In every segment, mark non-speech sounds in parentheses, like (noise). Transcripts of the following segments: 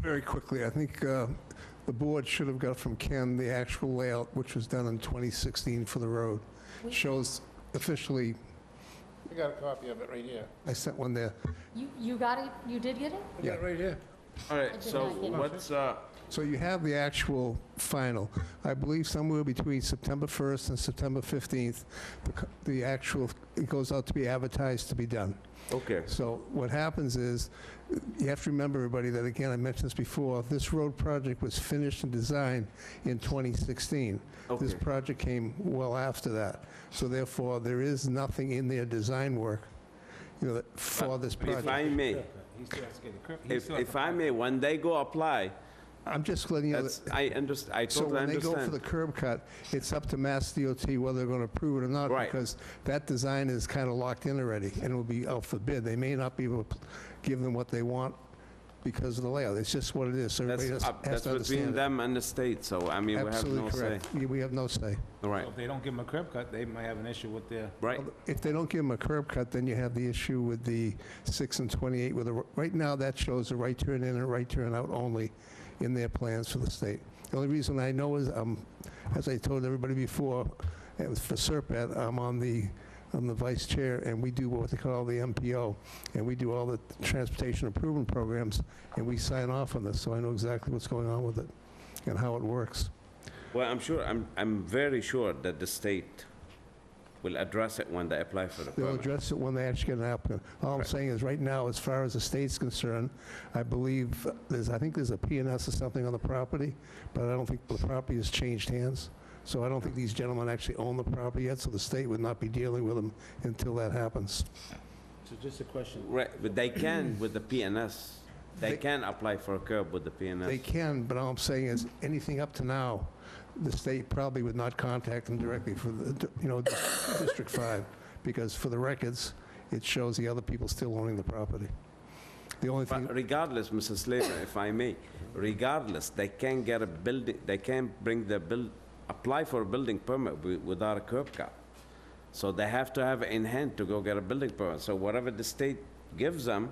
Very quickly, I think uh, the board should have got from Ken the actual layout, which was done in 2016 for the road. We- Shows officially, I got a copy of it right here. I sent one there. You, you got it, you did get it? I got it right here. All I did right, so not get it. what's, uh, So you have the actual final. I believe somewhere between September 1st and September 15th, the co- the actual, it goes out to be advertised to be done. okay, So what happens is, you have to remember, everybody, that again, I mentioned this before, this road project was finished and designed in 2016. This okay, project came well after that. So therefore, there is nothing in their design work, you know, that- for this if I project. may, if, if I may, when they go apply, I'm just letting you know, that's, that- I underst, I so totally when they go for the understand. curb cut, it's up to Mass DOT whether they're going to approve it or not. Right. Because that design is kind of locked in already, and will be out for bid. They may not be able to give them what they want because of the layout. It's just what it is, so everybody That's, has up- has that's to between understand it. them and the state, so, I mean, we have no Absolutely say. correct. We- We have no say. All right, If they don't give them a curb cut, they might have an issue with their, right, If they don't give them a curb cut, then you have the issue with the 6 and 28, with the, right now, that shows a right turn in and a right turn out only in their plans for the state. The only reason I know is, um, as I told everybody before, it was for Serpent, I'm on the, I'm the vice chair, and we do what they call the MPO, and we do all the transportation improvement programs, and we sign off on this, so I know exactly what's going on with it and how it works. well, I'm sure, I'm, I'm very sure that the state will address it when they apply for the They'll permit. address it when they actually get an applicant. All I'm Right. saying is, right now, as far as the state's concerned, I believe, there's, I think there's a S or something on the property, but I don't think the property has changed hands. So I don't think these gentlemen actually own the property yet, so the state would not be dealing with them until that happens. So just a question. Right, but they can with the PNS, they They- can apply for a curb with the They PNS. can, but all I'm saying is, anything up to now, the state probably would not contact them directly for the, you know, District 5, because for the records, it shows the other people still owning the property. The only thing, But regardless, Mrs. Slater, if I may, regardless, they can get a building, they can bring the build, apply for a building permit wi- without a curb cut. So they have to have it in hand to go get a building permit. So whatever the state gives them,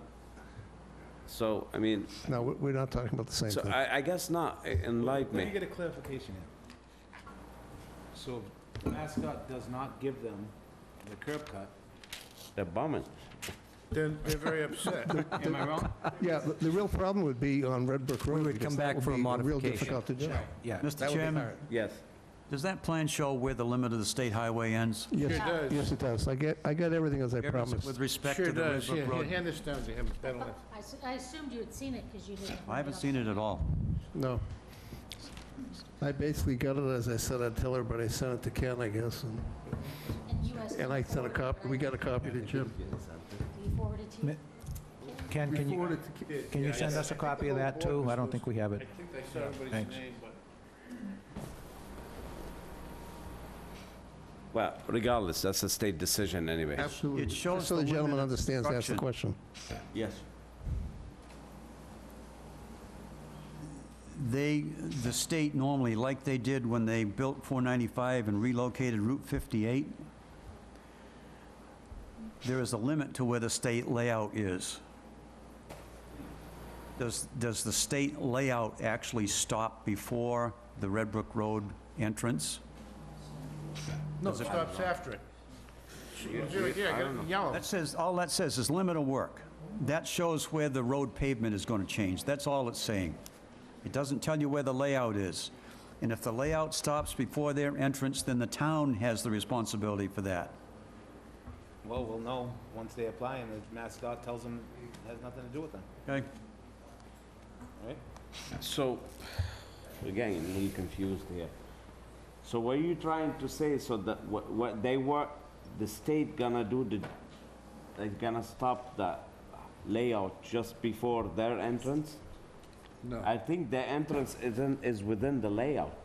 so, I mean, no, we- we're not talking about the same so uh, thing. I, I guess not, E- enlighten let me me. get a clarification here. So if Mascot does not give them the curb cut, They're bumming. Then they're very upset. am I wrong? Yeah, the- the real problem would be on Red Brook Road. We would because come that back would for a be Real modification. difficult to do. Yeah. That Mr. would be Chairman, hard. Yes. does that plan show where the limit of the state highway ends? Yes, Sure does. Yes, it does. I get, I got everything as I promised. With respect Sure to the Red does, yeah, Brook here, Road? hand this down to him, that'll, I I s- I assumed you had seen it because you didn't. I haven't seen it at all. No. I basically got it as I said I'd tell everybody. I sent it to Ken, I guess, and- And you asked. and I sent a copy, we got a copy to Jim. We forwarded to you. Ken, can you, can you send us a copy of that too? I don't think (laughs) we have it. think I saw everybody's Thanks. name, but. Well, regardless, that's a state decision anyway. Absolutely. It shows Just So the the gentleman limited understands, that's the question. Yes. They, the state normally, like they did when they built 495 and relocated Route 58, there is a limit to where the state layout is. Does, does the state layout actually stop before the Red Brook Road entrance? No, it stops after it. It's right here, I got it in yellow. That says, all that says is limit of work. That shows where the road pavement is going to change. That's all it's saying. It doesn't tell you where the layout is. And if the layout stops before their entrance, then the town has the responsibility for that. Well, we'll know once they apply and the Mascot tells them it has nothing to do with them, Okay? all right? So, again, he confused here. So what are you trying to say, so that what, what they were, the state gonna do the, they gonna stop the layout just before their entrance? No. I think the entrance isn't, is within the layout.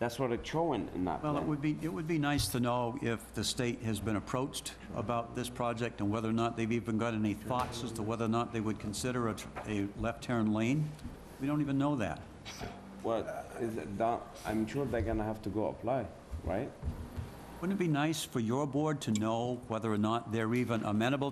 That's what it's showing in that Well, it plan. would be, it would be nice to know if the state has been approached about this project and whether or not they've even got any thoughts as to whether or not they would consider a, tr- a left turn lane. We don't even know that. Well, is it down, I'm sure they're gonna have to go apply, right? Wouldn't it be nice for your board to know whether or not they're even amenable